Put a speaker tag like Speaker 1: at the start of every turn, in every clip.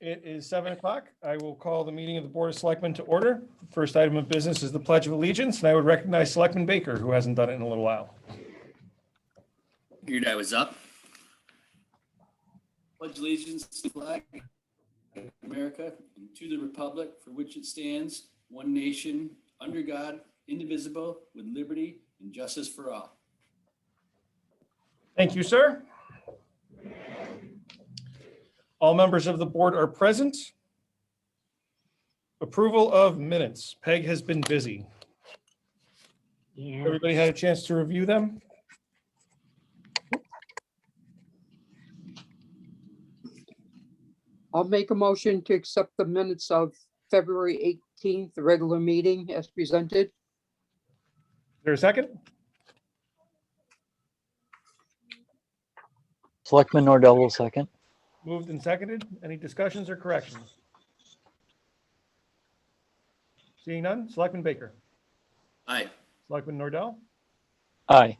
Speaker 1: It is seven o'clock. I will call the meeting of the Board of Selectmen to order. First item of business is the Pledge of Allegiance, and I would recognize Selectman Baker, who hasn't done it in a little while.
Speaker 2: Figured I was up. Pledge allegiance to the flag of America and to the republic for which it stands, one nation, under God, indivisible, with liberty and justice for all.
Speaker 1: Thank you, sir. All members of the board are present. Approval of minutes. Peg has been busy.
Speaker 3: Yeah,
Speaker 1: Everybody had a chance to review them?
Speaker 4: I'll make a motion to accept the minutes of February 18th, the regular meeting as presented.
Speaker 1: Is there a second?
Speaker 5: Selectman Norrell will second.
Speaker 1: Moved and seconded. Any discussions or corrections? Seeing none, Selectman Baker,
Speaker 2: Aye,
Speaker 1: Selectman Nordell,
Speaker 5: Aye.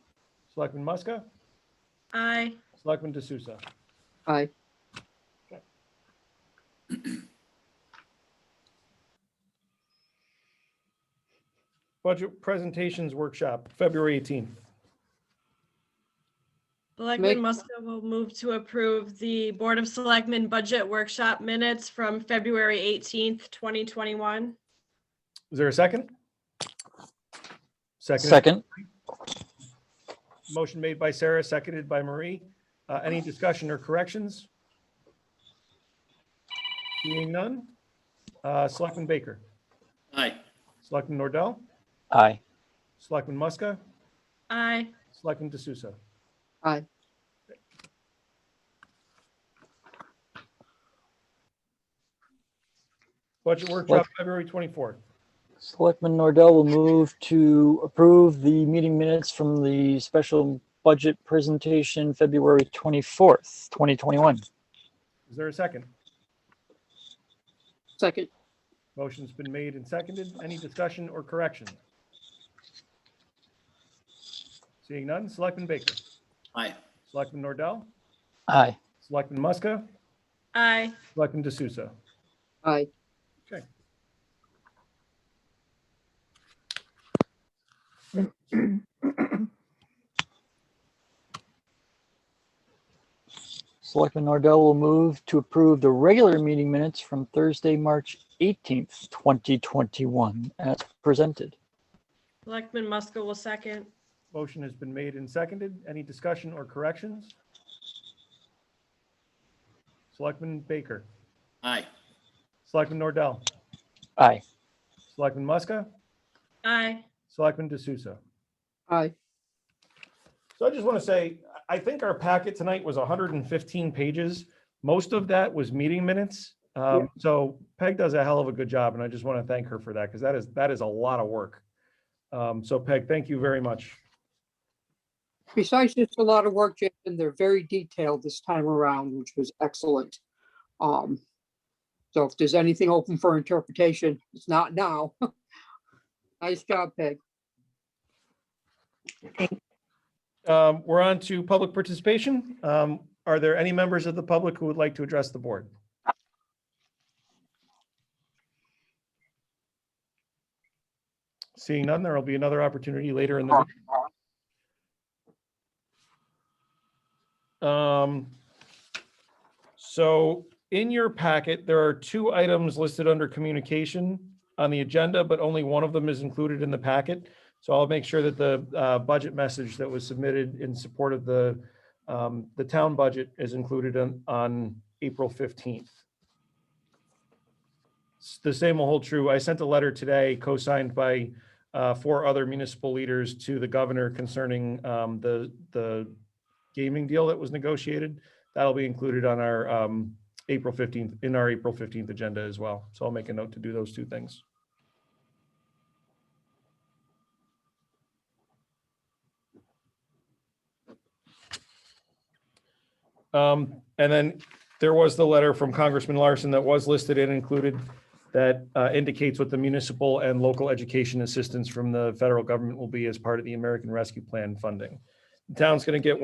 Speaker 1: Selectman Muska,
Speaker 6: Aye,
Speaker 1: Selectman D'Souza.
Speaker 4: Aye.
Speaker 1: Budget Presentations Workshop, February 18th.
Speaker 6: Selectman Muska will move to approve the Board of Selectmen Budget Workshop Minutes from February 18th, 2021.
Speaker 1: Is there a second? Second.
Speaker 5: Second.
Speaker 1: Motion made by Sarah, seconded by Marie. Uh, Any discussion or corrections? Seeing none. Uh, Selectman Baker,
Speaker 2: aye,
Speaker 1: Selectman Nordell,
Speaker 5: Aye.
Speaker 1: Selectman Muska,
Speaker 6: Aye,
Speaker 1: Selectman D'Souza.
Speaker 4: Aye.
Speaker 1: Budget Workshop, February 24th.
Speaker 5: Selectman Norrell will move to approve the meeting minutes from the special budget presentation, February 24th, 2021.
Speaker 1: Is there a second?
Speaker 4: Second,
Speaker 1: Motion's been made and seconded. Any discussion or correction? Seeing none, Selectman Baker,
Speaker 2: aye,
Speaker 1: Selectman Nordell,
Speaker 5: Aye.
Speaker 1: Selectman Muska,
Speaker 6: aye,
Speaker 1: Selectman D'Souza.
Speaker 4: aye.
Speaker 5: Selectman Norrell will move to approve the regular meeting minutes from Thursday, March 18th, 2021, as presented.
Speaker 6: Selectman Muska will second.
Speaker 1: Motion has been made and seconded. Any discussion or corrections? Selectman Baker,
Speaker 2: aye,
Speaker 1: Selectman Nordell,
Speaker 5: Aye.
Speaker 1: Selectman Muska,
Speaker 6: Aye,
Speaker 1: Selectman D'Souza.
Speaker 4: Aye.
Speaker 1: So I just want to say, I I think our packet tonight was 115 pages. Most of that was meeting minutes. Um, So Peg does a hell of a good job, and I just want to thank her for that because that is, that is a lot of work. Um, So Peg, thank you very much.
Speaker 4: Besides just a lot of work, Jason, they're very detailed this time around, which was excellent. Um, so if there's anything open for interpretation, it's not now. Nice job, Peg.
Speaker 1: Um, We're on to public participation. Um, Are there any members of the public who would like to address the board? Seeing none, there will be another opportunity later in the. meeting. Um, So in your packet, there are two items listed under communication on the agenda, but only one of them is included in the packet. So I'll make sure that the uh, budget message that was submitted in support of the, um, the town budget is included on, on April 15th. S- The same will hold true. I sent a letter today co-signed by uh, four other municipal leaders to the governor concerning um, the, the gaming deal that was negotiated. That'll be included on our um, April 15th, in our April 15th agenda as well. So I'll make a note to do those two things. Um, and then there was the letter from Congressman Larson that was listed and included that uh, indicates what the municipal and local education assistance from the federal government will be as part of the American Rescue Plan funding. The town's going to get